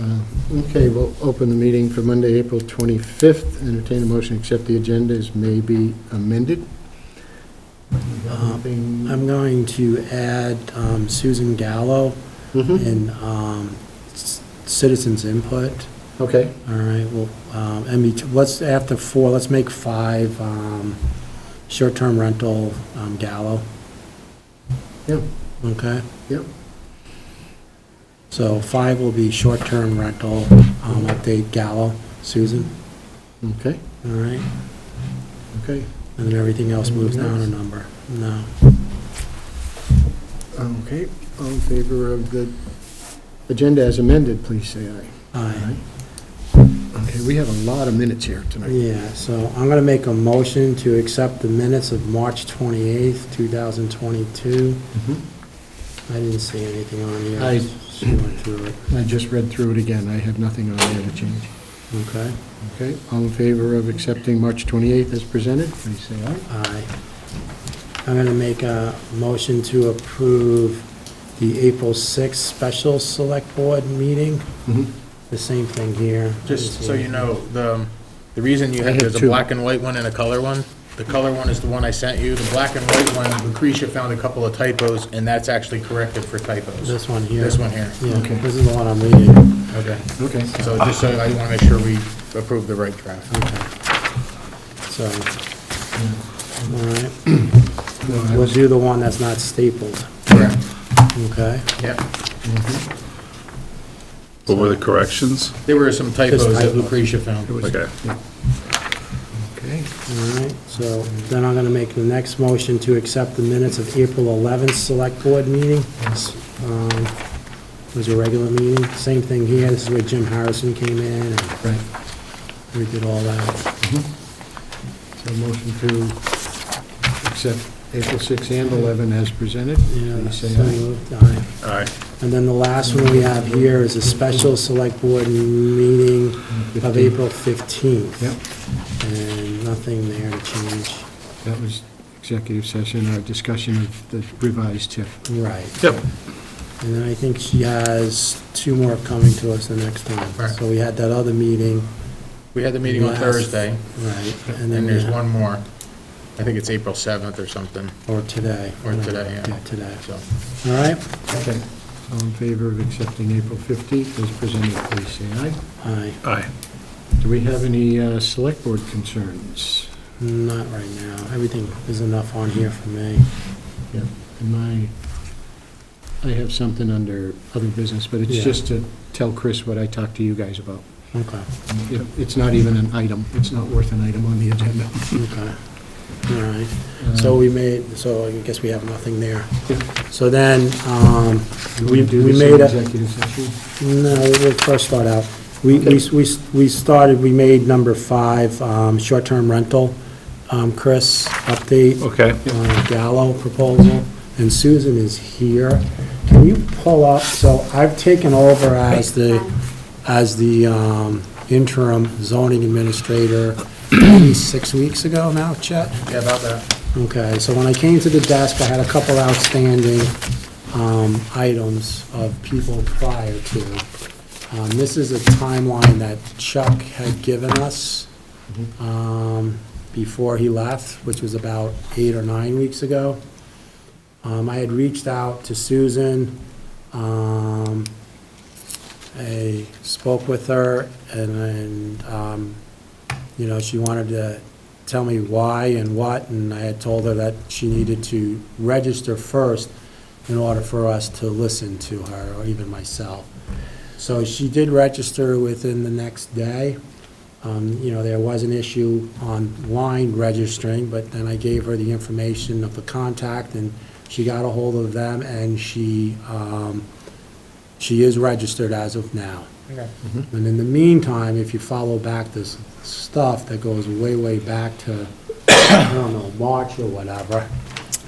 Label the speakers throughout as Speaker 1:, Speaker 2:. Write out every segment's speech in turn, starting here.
Speaker 1: Uh, Okay, we'll open the meeting for Monday, April 25th. Entertain a motion, to accept the agenda as may be amended. Uh,
Speaker 2: I'm going to add um, Susan Gallo
Speaker 1: Mhm.
Speaker 2: and um, c- citizens input.
Speaker 1: Okay,
Speaker 2: All right, well, um, and we- let's, after four, let's make five um, short-term rental um, Gallo,
Speaker 1: yep,
Speaker 2: okay?
Speaker 1: yep.
Speaker 2: So five will be short-term rental, um, update Gallo, Susan,
Speaker 1: Okay,
Speaker 2: all right?
Speaker 1: okay.
Speaker 2: And then everything else moves down a number. No,
Speaker 1: Okay, all in favor of the agenda as amended, please say aye.
Speaker 2: aye.
Speaker 1: Okay, we have a lot of minutes here tonight.
Speaker 2: Yeah, so I'm going to make a motion to accept the minutes of March 28th, 2022.
Speaker 1: Mhm.
Speaker 2: I didn't see anything on here.
Speaker 1: I-
Speaker 2: She went through it.
Speaker 1: I just read through it again, I have nothing on there to change.
Speaker 2: Okay,
Speaker 1: Okay, all in favor of accepting March 28th as presented, please say aye.
Speaker 2: aye. I'm going to make a motion to approve the April 6th special select board meeting.
Speaker 1: Mhm.
Speaker 2: The same thing here. I
Speaker 3: Just
Speaker 2: didn't
Speaker 3: so
Speaker 2: see
Speaker 3: you
Speaker 2: it.
Speaker 3: know, the, um, the reason you
Speaker 1: I
Speaker 3: have,
Speaker 1: have
Speaker 3: there's a
Speaker 1: two.
Speaker 3: black and white one and a color one. The color one is the one I sent you. The black and white one, Lucretia found a couple of typos, and that's actually corrected for typos.
Speaker 2: This one here.
Speaker 3: This one here.
Speaker 2: Yeah,
Speaker 1: Okay.
Speaker 2: this is the one I'm reading.
Speaker 3: Okay.
Speaker 1: Okay,
Speaker 3: So just so, I want to make sure we approve the right draft.
Speaker 2: Okay. So, all right.
Speaker 1: No, I
Speaker 2: We'll
Speaker 1: was-
Speaker 2: do the one that's not stapled,
Speaker 3: Correct.
Speaker 2: okay?
Speaker 3: Yep.
Speaker 4: What were the corrections?
Speaker 3: There were some typos that
Speaker 2: typos.
Speaker 3: Lucretia
Speaker 1: it
Speaker 3: found.
Speaker 1: was-
Speaker 4: Okay.
Speaker 1: Okay,
Speaker 2: All right, so then I'm going to make the next motion to accept the minutes of April 11th Select Board meeting. Um, It was a regular meeting, same thing here, this is where Jim Harrison came in, and
Speaker 1: right.
Speaker 2: we did all that.
Speaker 1: So motion to accept April 6 and 11 as presented,
Speaker 2: Yeah,
Speaker 1: please
Speaker 2: so
Speaker 1: say aye.
Speaker 2: moved, aye.
Speaker 4: All right.
Speaker 2: And then the last one we have here is a special Select Board meeting of
Speaker 1: 15.
Speaker 2: April 15th.
Speaker 1: Yep,
Speaker 2: And nothing there to change.
Speaker 1: that was executive session, our discussion of the revised TIF.
Speaker 2: Right.
Speaker 4: Yep.
Speaker 2: And then I think she has two more coming to us the next time.
Speaker 3: Right.
Speaker 2: So we had that other meeting,
Speaker 3: We had the meeting on
Speaker 2: Last-
Speaker 3: Thursday,
Speaker 2: right, and
Speaker 3: and
Speaker 2: then,
Speaker 3: there's
Speaker 2: we-
Speaker 3: one more. I think it's April 7th or something,
Speaker 2: or today.
Speaker 3: Or today, yeah.
Speaker 2: today.
Speaker 3: so.
Speaker 2: All right?
Speaker 1: Okay. All in favor of accepting April 15th as presented, please say aye.
Speaker 2: Aye,
Speaker 4: Aye.
Speaker 1: Do we have any uh, select board concerns?
Speaker 2: not right now. Everything is enough on here for me.
Speaker 1: Yeah. And my, I have something under other business, but it's
Speaker 2: Yeah.
Speaker 1: just to tell Chris what I talked to you guys about.
Speaker 2: Okay,
Speaker 1: It- It's not even an item, it's not worth an item on the agenda.
Speaker 2: okay. All right. So we made, so I guess we have nothing there. So then, um,
Speaker 1: Uh,
Speaker 2: we, we made a,
Speaker 1: Executive session?
Speaker 2: No, we'll first start out. We, we, we we started, we made number five, um, short-term rental. Um, Chris, update.
Speaker 4: Okay.
Speaker 2: uh, Gallo proposal, and Susan is here. Can you pull up, so I've taken over as the, as the um, interim zoning administrator maybe six weeks ago now, Chet?
Speaker 3: Yeah, about that.
Speaker 2: Okay, so when I came to the desk, I had a couple outstanding um, items of people prior to. Um, This is a timeline that Chuck had given us um, before he left, which was about eight or nine weeks ago. Um, I had reached out to Susan. um, I spoke with her, and then um, you know, she wanted to tell me why and what, and I had told her that she needed to register first in order for us to listen to her, or even myself. So she did register within the next day. Um, you know, there was an issue online registering, but then I gave her the information of the contact, and she got a hold of them, and she, um, she is registered as of now.
Speaker 3: Okay.
Speaker 2: And in the meantime, if you follow back this stuff that goes way, way back to, I don't know, March or whatever,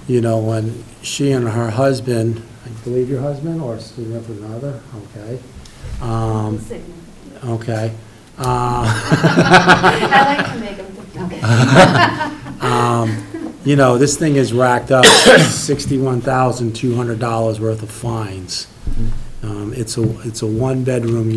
Speaker 2: you know, when she and her husband, I believe your husband or significant other, okay, um, okay, uh,
Speaker 5: I like to make them think.
Speaker 2: you know, this thing has racked up sixty-one thousand two hundred dollars worth of fines. Um, It's a, it's a one-bedroom